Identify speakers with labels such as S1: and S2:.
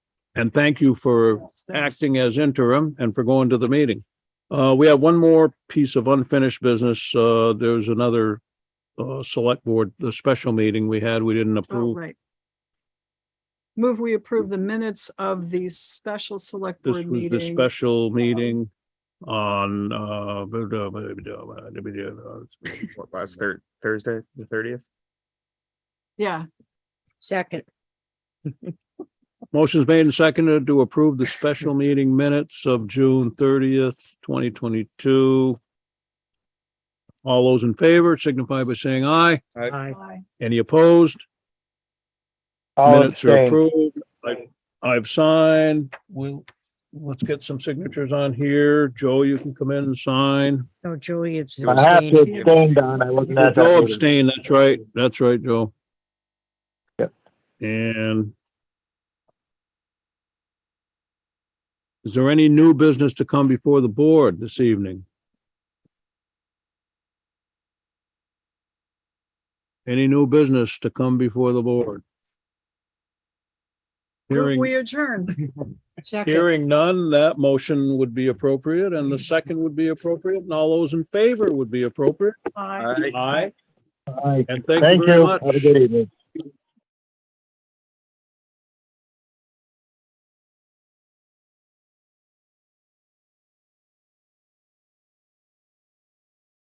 S1: And thank you for acting as interim and for going to the meeting. Uh, we have one more piece of unfinished business. Uh, there's another uh, select board, the special meeting we had, we didn't
S2: Oh,
S1: approve.
S2: right. Move, we approve the minutes of the special select
S1: This
S2: board
S1: was the
S2: meeting.
S1: special meeting on, uh, blah, blah, blah, blah, blah, blah, blah.
S3: What, last Thur- Thursday, the thirtieth?
S2: Yeah,
S4: Second,
S1: motion's made and seconded to approve the special meeting minutes of June thirtieth, twenty twenty-two. All those in favor signify by saying aye.
S4: aye.
S2: aye.
S1: Any opposed?
S5: I'll
S1: Minutes are
S5: abstain.
S1: approved. I, I've signed. We'll, let's get some signatures on here. Joe, you can come in and sign.
S4: No, Joey Oh, abstained.
S5: I have to abstain, Don. I wasn't at that
S1: Joe
S5: meeting.
S1: abstain, that's right. That's right, Joe.
S5: Yep.
S1: And is there any new business to come before the board this evening? Any new business to come before the board?
S2: Move,
S1: Hearing.
S2: We adjourn.
S4: Second,
S1: Hearing none, that motion would be appropriate and the second would be appropriate and all those in favor would be appropriate.
S2: Aye.
S3: Aye.
S1: Aye.
S5: All right.
S1: And thank you
S5: Thank
S1: very
S5: you.
S1: much.
S5: Have a good evening.